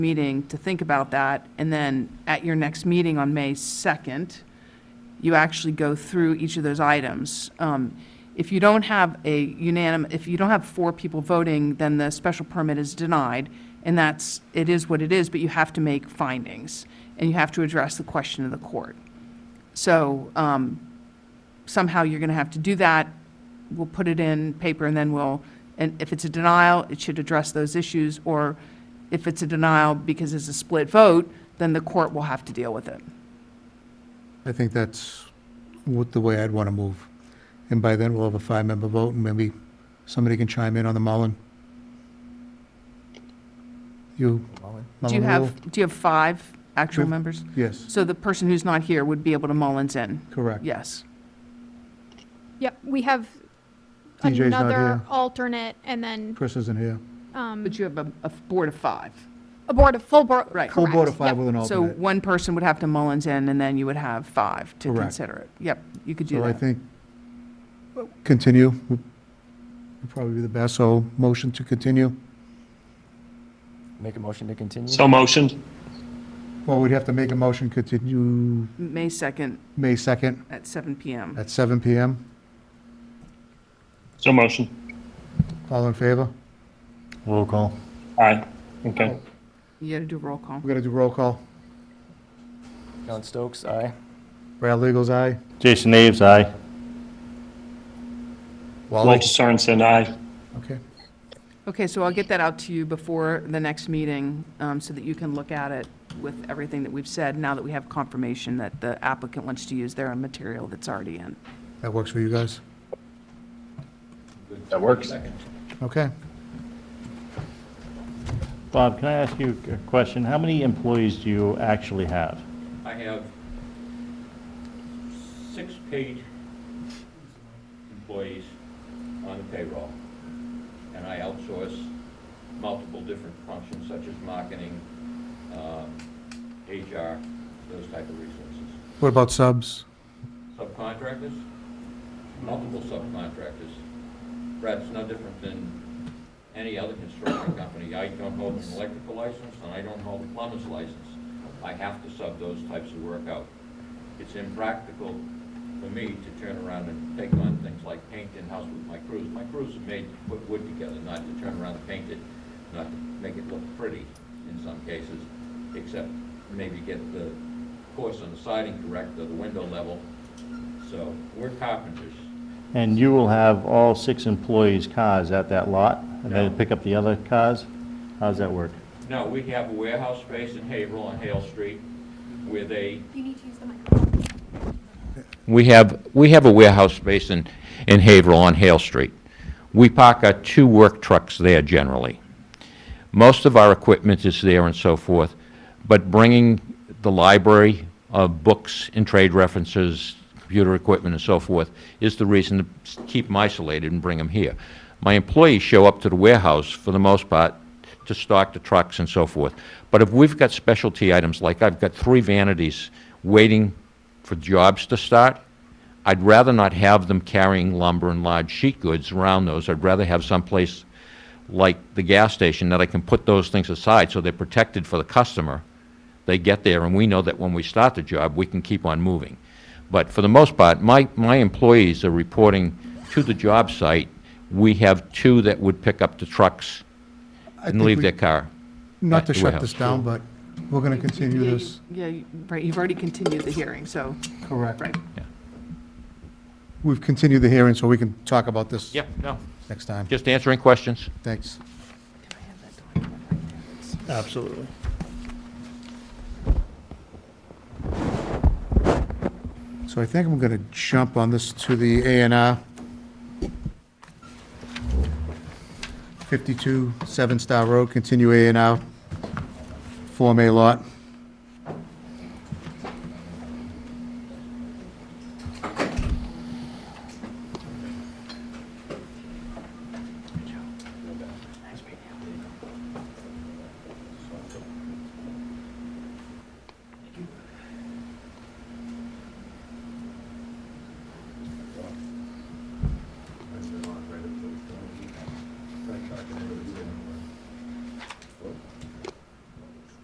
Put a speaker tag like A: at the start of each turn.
A: meeting to think about that, and then at your next meeting on May 2nd, you actually go through each of those items. Um, If you don't have a unanimous, if you don't have four people voting, then the special permit is denied, and that's, it is what it is, but you have to make findings, and you have to address the question of the court. So um, somehow you're going to have to do that. We'll put it in paper, and then we'll, and if it's a denial, it should address those issues, or if it's a denial because it's a split vote, then the court will have to deal with it.
B: I think that's what, the way I'd want to move. And by then, we'll have a five-member vote, and maybe somebody can chime in on the Mullen. You?
A: Do you
B: Mullen
A: have,
B: rule?
A: do you have five actual
B: We've-
A: members?
B: Yes,
A: So the person who's not here would be able to Mullins in?
B: correct.
A: Yes.
C: Yep, we have
B: DJ's not
C: another
B: here.
C: alternate and then
B: Chris isn't here.
C: um,
A: But you have a, a board of five.
C: a board of, full board.
A: Right.
B: Full board of five
C: correct, yep.
B: with an
A: So
B: alternate.
A: one person would have to Mullins in, and then you would have five to
B: Correct.
A: consider it. Yep, you could do
B: So I
A: that.
B: think, continue would probably be the best, so motion to continue.
D: Make a motion to continue?
E: So motioned.
B: Well, we'd have to make a motion, continue
A: May 2nd
B: May 2nd
A: at seven PM.
B: at seven PM.
E: So motion.
B: All in favor?
D: Roll call.
E: Aye. Okay.
A: You gotta do a roll call.
B: We're gonna do roll call.
D: John Stokes, aye.
B: Brad Legals, aye.
F: Jason Aves, aye.
B: Wally?
E: Walter Sorensen, aye.
B: Okay.
A: Okay, so I'll get that out to you before the next meeting, um, so that you can look at it with everything that we've said, now that we have confirmation that the applicant wants to use their own material that's already in.
B: That works for you guys?
E: That works.
B: Okay.
F: Bob, can I ask you a question? How many employees do you actually have?
G: I have six paid employees on the payroll, and I outsource multiple different functions such as marketing, um, HR, those type of resources.
B: What about subs?
G: Subcontractors, multiple subcontractors. Brad's no different than any other construction company. I don't hold an electrical license, and I don't hold a plumber's license. I have to sub those types of work out. It's impractical for me to turn around and take on things like paint in-house with my crews. My crews are made to put wood together, not to turn around and paint it, not to make it look pretty in some cases, except maybe get the course on the siding correct or the window level. So, we're carpenters.
F: And you will have all six employees' cars at that lot? And then
G: No.
F: pick up the other cars? How does that work?
G: No, we have a warehouse space in Haverhill on Hale Street where they
C: You need to use the microphone.
G: We have, we have a warehouse space in, in Haverhill on Hale Street. We park our two work trucks there generally. Most of our equipment is there and so forth, but bringing the library of books and trade references, computer equipment and so forth, is the reason to s- keep them isolated and bring them here. My employees show up to the warehouse, for the most part, to stock the trucks and so forth. But if we've got specialty items, like I've got three vanities waiting for jobs to start, I'd rather not have them carrying lumber and large sheet goods around those. I'd rather have someplace like the gas station that I can put those things aside so they're protected for the customer. They get there and we know that when we start the job, we can keep on moving. But for the most part, my, my employees are reporting to the job site. We have two that would pick up the trucks
B: I
G: and
B: think
G: leave
B: we-
G: their car.
B: Not
G: at
B: to
G: the
B: shut
G: warehouse.
B: this down, but we're gonna continue
A: Yeah, you-
B: this.
A: Yeah, you- right, you've already continued the hearing, so,
B: Correct.
A: right.
B: We've continued the hearing, so we can talk about this
G: Yeah, no,
B: next time.
G: just answering questions.
B: Thanks.
F: Absolutely.
B: So I think I'm gonna jump on this to the A and R. Fifty-two Seven Star Road, continue A and R. Form A lot.